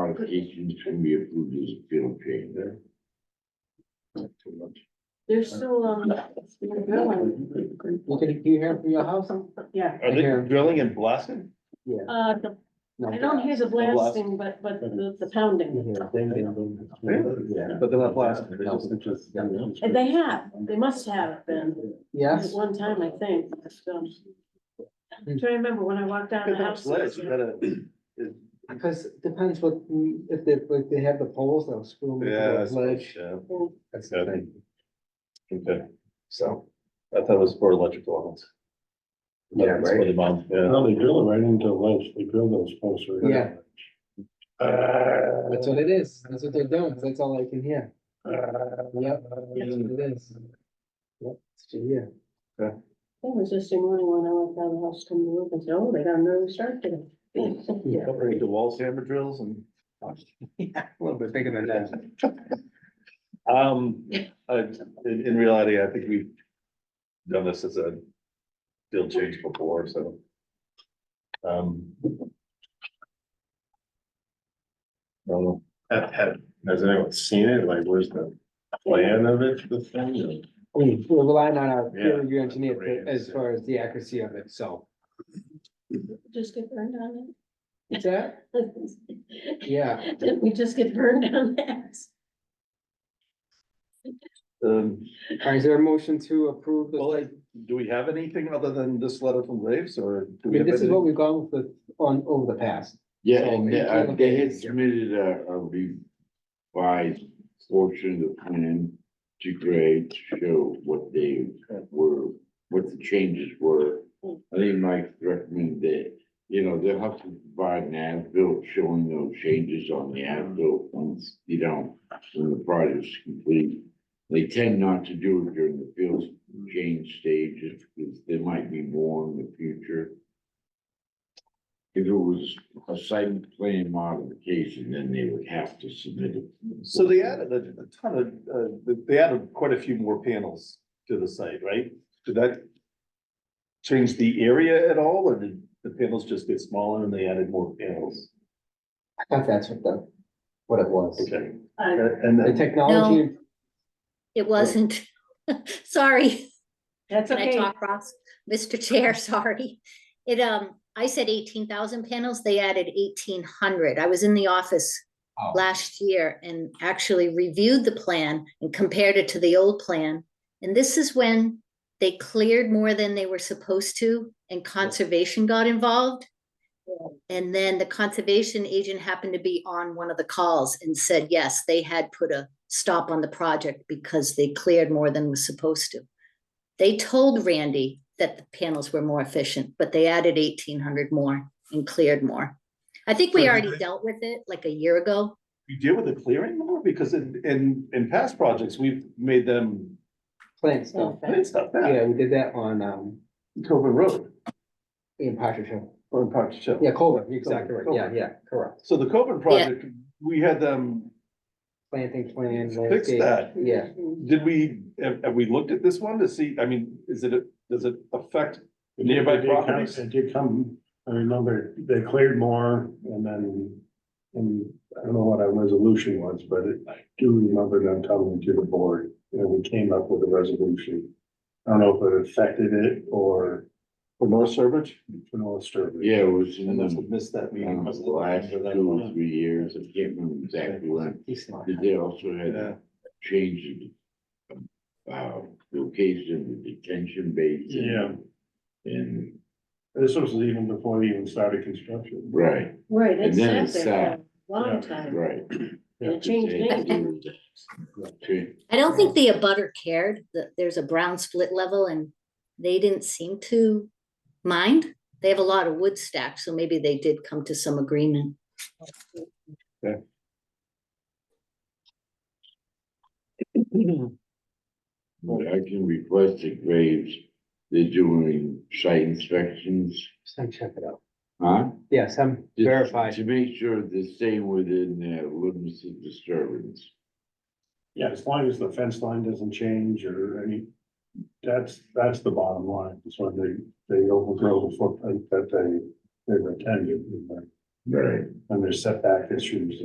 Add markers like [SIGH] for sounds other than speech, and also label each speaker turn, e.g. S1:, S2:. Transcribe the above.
S1: modifications can be approved as a field change there. Too much.
S2: There's still, um, still going,
S3: What did you hear from your house?
S2: yeah.
S4: Are they drilling and blasting?
S2: Uh, the- I don't hear the blasting, but, but the, the pounding.
S3: But
S4: they're not blasting, they're just-
S2: And they have, they must have been, at
S3: Yes,
S2: one time, I think, so. I'm trying to remember when I walked down the house.
S4: Sledge, you gotta-
S3: because it depends what, if they, like, they have the poles, they'll screw them
S4: Yeah,
S3: into
S4: that's-
S3: the ledge.
S4: yeah,
S3: That's the thing.
S4: okay.
S3: So,
S4: I thought it was for electrical. ones.
S3: Yeah,
S4: That's for
S3: right.
S4: the bomb, yeah.
S5: No, they drill it right into the ledge, they drill those posts right. into
S3: Yeah.
S1: Uh,
S3: that's what it is. That's what they're doing. That's all I can hear.
S1: uh,
S3: Yep, that's what it is. Yep, that's what you hear.
S2: It was just a morning when I walked down the house, come to work and said, oh, they got an early start today.
S3: Yeah.
S4: Don't forget the wall hammer drills and.
S3: A little bit bigger than that.
S4: Um, I, in, in reality, I think we've done this as a deal change before, so. Um. No,
S5: Have, have, has anyone seen it? Like, where's the plan of it, the thing?
S3: We- We're relying on our
S5: Yeah.
S3: peer review engineer to- as
S5: Ratings.
S3: far as the accuracy of it, so.
S2: Just get burned on
S3: What's that?
S2: it.
S3: Yeah,
S2: Didn't [LAUGHS] we just get burned on that?
S4: um,
S3: all right, is there a motion to approve? the-
S4: well, like, do we have anything other than this letter from Graves or? do
S3: I
S4: we
S3: mean,
S4: have
S3: this is what
S4: anything?
S3: we've gone with on over the past.
S1: Yeah,
S3: So
S1: and
S3: you
S1: they,
S3: can't
S1: uh,
S3: look
S1: they
S3: at
S1: had
S3: it.
S1: submitted a, a revised portion of the plan to grade to show what they were, what the changes were. I think Mike recommended that, you know, they'll have to provide an as-built showing those changes on the as-built once, you know, when the project's complete. They tend not to do it during the field change stages, because there might be more in the future. If it was a site plan modification, then they would have to submit it.
S4: So they added a a ton of, uh, they- they added quite a few more panels to the site, right? Did that change the area at all, or did the panels just get smaller and they added more panels?
S3: I thought that's what the, what it was.
S4: Okay,
S2: I,
S4: and
S3: The
S4: then,
S3: technology,
S6: It wasn't. [LAUGHS] Sorry,
S2: that's
S6: can I
S2: okay.
S6: talk, Ross? Mr. Chair, [LAUGHS] sorry. It, um, I said eighteen thousand panels, they added eighteen hundred. I was in the office
S3: Oh.
S6: last year and actually reviewed the plan and compared it to the old plan. And this is when they cleared more than they were supposed to and conservation got involved. And then the conservation agent happened to be on one of the calls and said, yes, they had put a stop on the project because they cleared more than was supposed to. They told Randy that the panels were more efficient, but they added eighteen hundred more and cleared more. I think
S4: So
S6: we
S4: did
S6: already
S4: they-
S6: dealt with it like a year ago.
S4: you deal with the clearing more, because in, in, in past projects, we've made them
S3: plant stuff.
S4: plant stuff back.
S3: Yeah, we did that on, um,
S4: Coven Road
S3: in Partridge.
S4: or in Park Hill.
S3: Yeah, Colbert, you're exactly right. Yeah, yeah, correct.
S4: So the Coven project, we had them,
S3: Planting plan.
S4: Fix
S3: landscape.
S4: that.
S3: Yeah,
S4: did we, have, have we looked at this one to see, I mean, is it, a- does it affect Nearby
S5: It did come-
S4: properties.
S5: It did come, I remember they cleared more and then, and I don't know what our resolution was, but it- I do remember them coming to the board. And we came up with a resolution. I don't know if it affected it or
S4: for North Sturbridge?
S5: for North Sturbridge.
S1: Yeah, it was
S4: I
S1: in
S4: must have
S1: the,
S4: missed that meeting.
S1: um,
S4: Must have
S1: last
S4: looked
S1: two
S4: for that
S1: or
S4: one.
S1: three years, I can't remember exactly when,
S3: he's smart.
S1: but they also had
S4: Yeah.
S1: a change in uh, location, of the detention basin.
S5: Yeah.
S1: And,
S5: This was even before they even started construction.
S1: right,
S2: Right, it
S1: And then
S2: sat
S1: it's
S2: there
S1: sat.
S2: for a long
S5: Yeah.
S2: time.
S1: right.
S2: And it changed names.
S1: Change-
S6: I don't think the abutter cared that there's a brown split level and they didn't seem to mind. They have a lot of wood stacks, so maybe they did come to some agreement.
S1: I can request the graves, they're doing site inspections,
S3: Just gotta check it out.
S1: huh?
S3: Yes, I'm
S1: Just
S3: verified.
S1: To make sure they're staying within the limits of disturbance.
S5: Yeah, as long as the fence line doesn't change or any, that's, that's the bottom line. It's when they, they overgrow the footprint that they, they were intended.
S1: Right.
S5: And there's setback issues